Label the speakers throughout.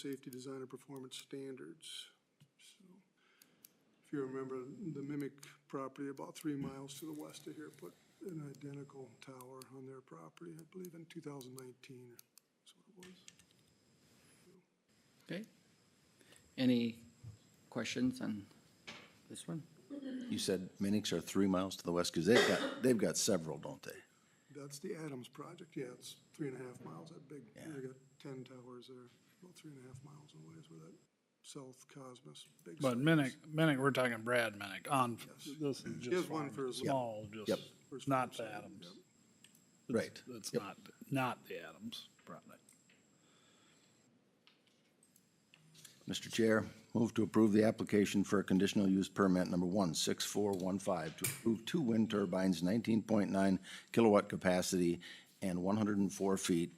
Speaker 1: safety design and performance standards. So, If you remember, the Mimic property about three miles to the west of here put an identical tower on their property, I believe in 2019 is what it was.
Speaker 2: Okay. Any questions on this one?
Speaker 3: You said Minix are three miles to the west, because they've got, they've got several, don't they?
Speaker 1: That's the Adams project, yeah, it's three and a half miles, that big, they got ten towers there, about three and a half miles away is where that South Cosmos. big
Speaker 4: But
Speaker 1: site
Speaker 4: Minnick,
Speaker 1: is.
Speaker 4: Minnick, we're talking Brad Minnick on, this is
Speaker 1: He has
Speaker 4: just
Speaker 1: one
Speaker 4: farm,
Speaker 1: for his.
Speaker 4: small, just,
Speaker 1: for his farm
Speaker 4: not the
Speaker 1: site,
Speaker 4: Adams.
Speaker 1: yep.
Speaker 3: Right.
Speaker 4: It's
Speaker 3: Yep.
Speaker 4: not, not the Adams product.
Speaker 3: Mr. Chair, move to approve the application for a conditional use permit number one six four one five to approve two wind turbines, nineteen point nine kilowatt capacity and one hundred and four feet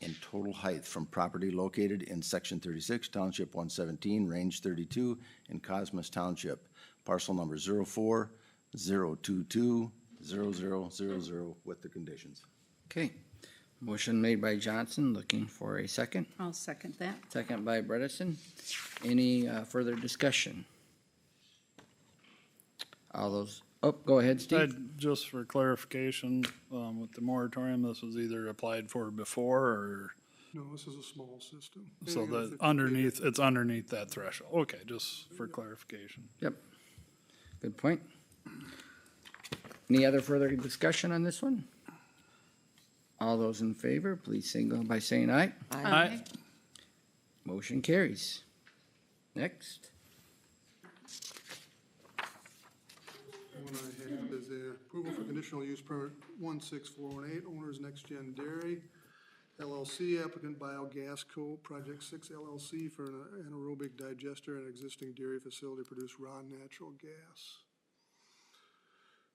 Speaker 3: in total height from property located in section thirty-six, township one seventeen, range thirty-two, in Cosmos Township, parcel number zero four zero two two zero zero zero zero with the conditions.
Speaker 2: Okay. Motion made by Johnson, looking for a second.
Speaker 5: I'll second that.
Speaker 2: Second by Bredesen. Any uh, further discussion? All those, oh, go ahead, Steve.
Speaker 4: Ted, just for clarification, um, with the moratorium, this was either applied for before or,
Speaker 1: No, this is a small system.
Speaker 4: so
Speaker 1: Anything under
Speaker 4: that
Speaker 1: 50
Speaker 4: underneath, it's underneath that threshold. Okay, just for clarification.
Speaker 2: Yep. Good point. Any other further discussion on this one? All those in favor, please signal by saying aye.
Speaker 4: Aye.
Speaker 2: Motion carries. Next.
Speaker 1: One I have is a approval for conditional use permit one six four one eight, owners Next Gen Dairy LLC, applicant Biogas Co., Project Six LLC for an anaerobic digester and existing dairy facility to produce raw natural gas.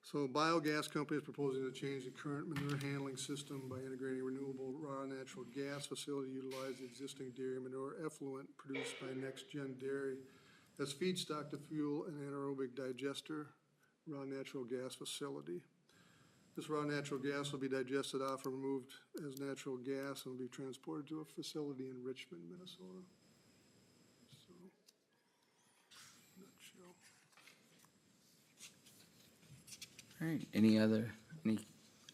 Speaker 1: So Biogas Company is proposing to change the current manure handling system by integrating renewable raw natural gas facility to utilize the existing dairy manure effluent produced by Next Gen Dairy as feedstock to fuel an anaerobic digester raw natural gas facility. This raw natural gas will be digested off or removed as natural gas and will be transported to a facility in Richmond, Minnesota. So, nutshell.
Speaker 2: All right, any other, any,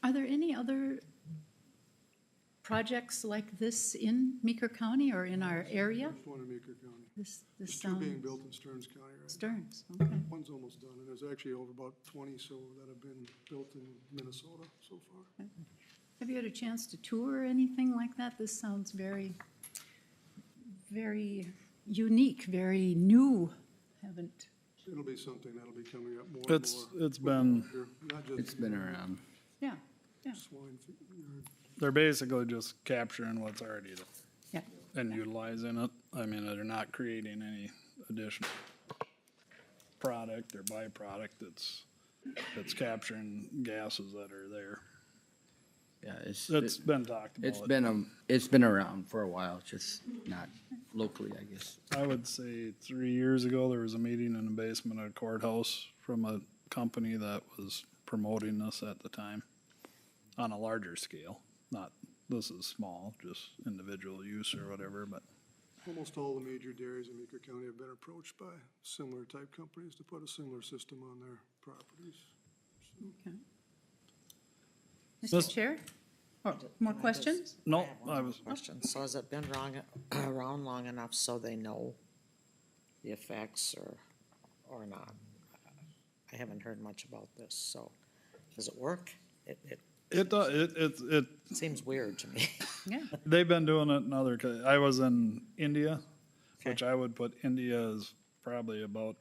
Speaker 5: Are there any other projects like this in Meeker County or in our area?
Speaker 1: Just one in Meeker County.
Speaker 5: This, this
Speaker 1: There's two being
Speaker 5: sounds,
Speaker 1: built in Stearns County, right?
Speaker 5: Stearns, okay.
Speaker 1: One's almost done, and there's actually over about twenty so that have been built in Minnesota so far.
Speaker 5: Have you had a chance to tour or anything like that? This sounds very, very unique, very new. Haven't,
Speaker 1: It'll be something that'll be coming up more and
Speaker 4: It's,
Speaker 1: more.
Speaker 4: it's been,
Speaker 1: Here, Not
Speaker 2: it's
Speaker 1: just
Speaker 2: been around.
Speaker 5: yeah, yeah,
Speaker 1: swine, fe-
Speaker 4: they're basically just capturing what's already there.
Speaker 5: yeah.
Speaker 4: and utilizing it. I mean, they're not creating any additional product or byproduct that's, that's capturing gases that are there.
Speaker 2: Yeah, it's,
Speaker 4: That's
Speaker 2: it's
Speaker 4: been talked about.
Speaker 2: it's been, um, it's been around for a while, just not locally, I guess.
Speaker 4: I would say three years ago, there was a meeting in the basement of courthouse from a company that was promoting this at the time on a larger scale. Not, this is small, just individual use or whatever, but
Speaker 1: Almost all the major dairies in Meeker County have been approached by similar type companies to put a similar system on their properties.
Speaker 5: okay.
Speaker 4: This-
Speaker 5: Mr. Chair? Oh, More questions?
Speaker 4: no,
Speaker 6: I have one
Speaker 4: I
Speaker 6: more
Speaker 4: was,
Speaker 6: Question, so has it been wrong, around long enough so they know the effects or, or not? I haven't heard much about this, so, does it work? It, it
Speaker 4: it, do- it, it, it
Speaker 6: seems weird to me.
Speaker 5: Yeah.
Speaker 4: They've been doing it in other. co- I was in India, which
Speaker 6: Okay.
Speaker 4: I would put India is probably about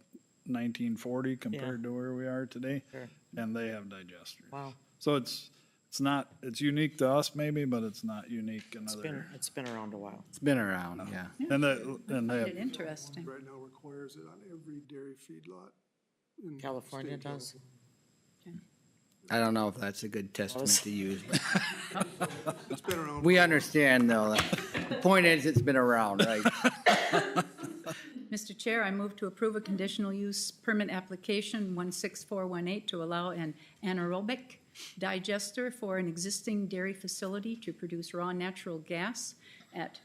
Speaker 4: 1940 compared to where we are today,
Speaker 6: Sure.
Speaker 4: and they have digesters.
Speaker 6: Wow,
Speaker 4: So it's it's not it's unique to us maybe, but it's not unique in
Speaker 6: it's been,
Speaker 4: other.
Speaker 6: it's been around a while.
Speaker 2: It's been around, yeah.
Speaker 4: And they and they
Speaker 5: Find
Speaker 4: have
Speaker 5: it Interesting.
Speaker 1: Right now requires it on every dairy feedlot. in the
Speaker 6: California
Speaker 1: state of
Speaker 6: does?
Speaker 2: I don't know if that's a good testament to use, but
Speaker 1: California. It's been around.
Speaker 2: we understand though. that- The point is, it's been around, right?
Speaker 5: Mr. Chair, I move to approve a conditional use permit application 16418 to allow an anaerobic digester for an existing dairy facility to produce raw natural gas at